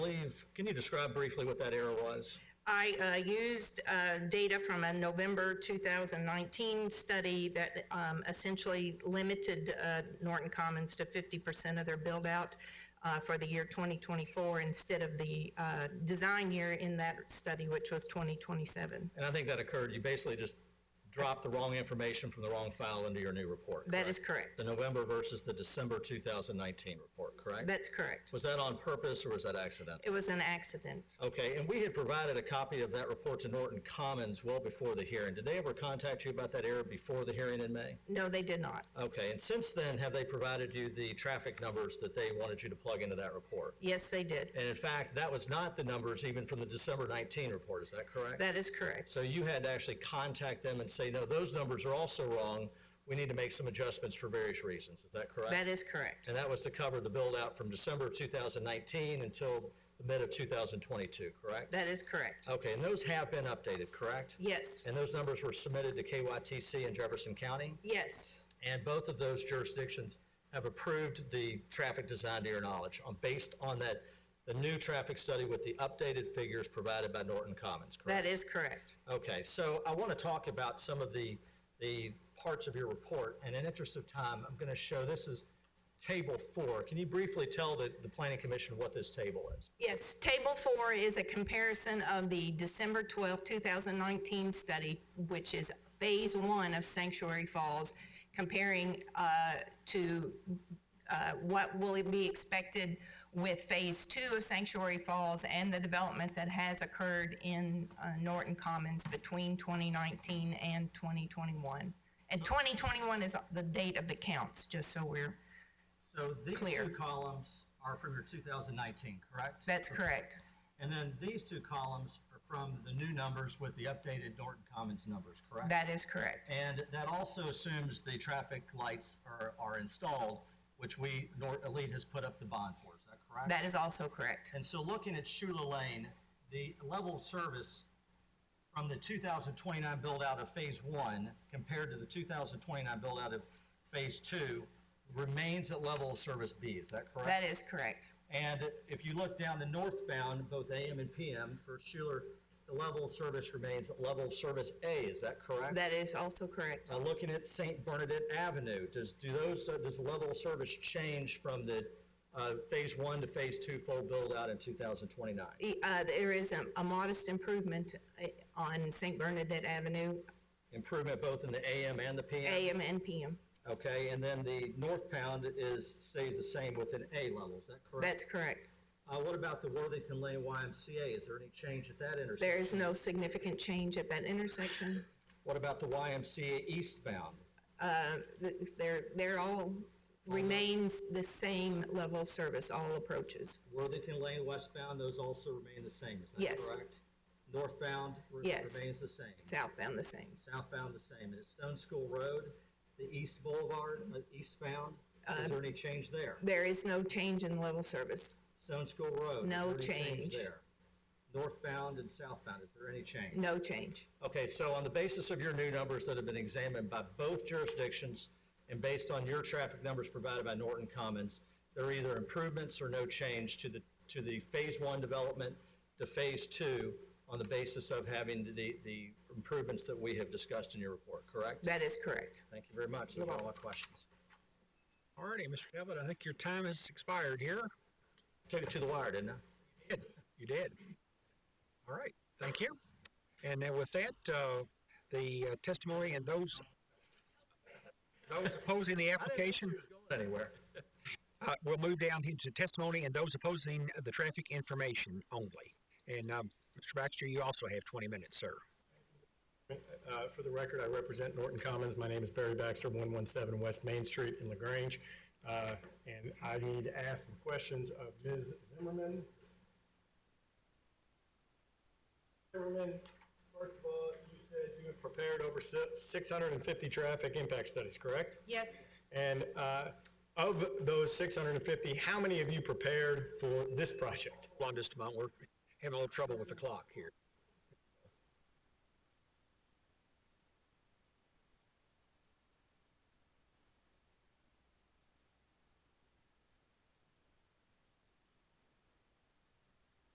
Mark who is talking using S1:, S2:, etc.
S1: If, can you describe briefly what that error was?
S2: I uh, used uh, data from a November 2019 study that um, essentially limited uh, Norton Commons to 50% of their build-out uh, for the year 2024 instead of the uh, design year in that study, which was 2027.
S1: And I think that occurred, you basically just dropped the wrong information from the wrong file into your new report,
S2: That
S1: correct?
S2: is correct.
S1: The November versus the December 2019 report, correct?
S2: That's correct.
S1: Was that on purpose or was that accidental?
S2: It was an accident.
S1: Okay, and we had provided a copy of that report to Norton Commons well before the hearing. Did they ever contact you about that error before the hearing in May?
S2: No, they did not.
S1: Okay, and since then, have they provided you the traffic numbers that they wanted you to plug into that report?
S2: Yes, they did.
S1: And in fact, that was not the numbers even from the December 19 report, is that correct?
S2: That is correct.
S1: So you had to actually contact them and say, no, those numbers are also wrong. We need to make some adjustments for various reasons. Is that correct?
S2: That is correct.
S1: And that was to cover the build out from December of 2019 until the mid of 2022, correct?
S2: That is correct.
S1: Okay, and those have been updated, correct?
S2: Yes,
S1: And those numbers were submitted to KYTC in Jefferson County?
S2: yes,
S1: And both of those jurisdictions have approved the traffic design to your knowledge on, based on that, the new traffic study with the updated figures provided by Norton Commons,
S2: that
S1: correct?
S2: is correct.
S1: Okay, so I want to talk about some of the, the parts of your report, and in interest of time, I'm going to show, this is table four. Can you briefly tell the, the planning commission what this table is?
S2: Yes, table four is a comparison of the December 12, 2019 study, which is phase one of Sanctuary Falls, comparing uh, to uh, what will be expected with phase two of Sanctuary Falls and the development that has occurred in uh, Norton Commons between 2019 and 2021. And 2021 is the date of the counts, just so we're,
S1: So these
S2: Clear.
S1: two columns are from your 2019, correct?
S2: that's correct.
S1: And then these two columns are from the new numbers with the updated Norton Commons numbers, correct?
S2: That is correct.
S1: And that also assumes the traffic lights are, are installed, which we, Nor- Elite has put up the bond for, is that correct?
S2: That is also correct.
S1: And so looking at Shula Lane, the level of service from the 2029 build-out of Phase 1 compared to the 2029 build-out of Phase 2 remains at level of service B, is that correct?
S2: That is correct.
S1: And if you look down to northbound, both AM and PM for Schuler, the level of service remains at level of service A, is that correct?
S2: That is also correct.
S1: Uh, looking at St. Bernadette Avenue, does, do those, uh, does the level of service change from the, uh, phase one to phase two full build-out in two thousand twenty-nine?
S2: E- uh, There is a- a modest improvement uh, on St. Bernadette Avenue,
S1: Improvement both in the AM and the PM?
S2: AM and PM.
S1: Okay, and then the northbound is, stays the same with an A level, is that correct?
S2: That's correct.
S1: Uh, what about the Worthington Lane YMCA? Is there any change at that intersection?
S2: There is no significant change at that intersection.
S1: What about the YMCA eastbound?
S2: Th- They're, they're all, remains the same level of service, all approaches.
S1: Worthington Lane westbound, those also remain the same, is that
S2: Yes.
S1: correct? Northbound re-
S2: Yes.
S1: remains the same.
S2: Southbound the same.
S1: Southbound the same. And at Stone School Road, the east boulevard, uh, eastbound,
S2: Uh,
S1: is there any change there?
S2: There is no change in level service.
S1: Stone School Road? is
S2: No
S1: there any
S2: change.
S1: there? Northbound and southbound, is there any change?
S2: No change.
S1: Okay, so on the basis of your new numbers that have been examined by both jurisdictions and based on your traffic numbers provided by Norton Commons, there are either improvements or no change to the, to the phase one development to phase two on the basis of having the, the improvements that we have discussed in your report, correct?
S2: That is correct.
S1: Thank you very much. Those are all my questions.
S3: All righty, Mr. Cabot, I think your time has expired here.
S1: Took it to the wire, didn't I?
S3: Good, You did. All right, thank you. And then with that, uh, the uh, testimony and those, those opposing the application,
S1: Anywhere.
S3: uh, we'll move down into testimony and those opposing the traffic information only. And, um, Mr. Baxter, you also have twenty minutes, sir.
S4: Uh, For the record, I represent Norton Commons. My name is Barry Baxter, 117 West Main Street in LaGrange. Uh, And I need to ask some questions of Ms. Zimmerman. Zimmerman, first of all, you said you have prepared over si- 650 traffic impact studies, correct?
S2: Yes,
S4: And uh, of those 650, how many have you prepared for this project?
S3: One just a moment, we're having a little trouble with the clock here.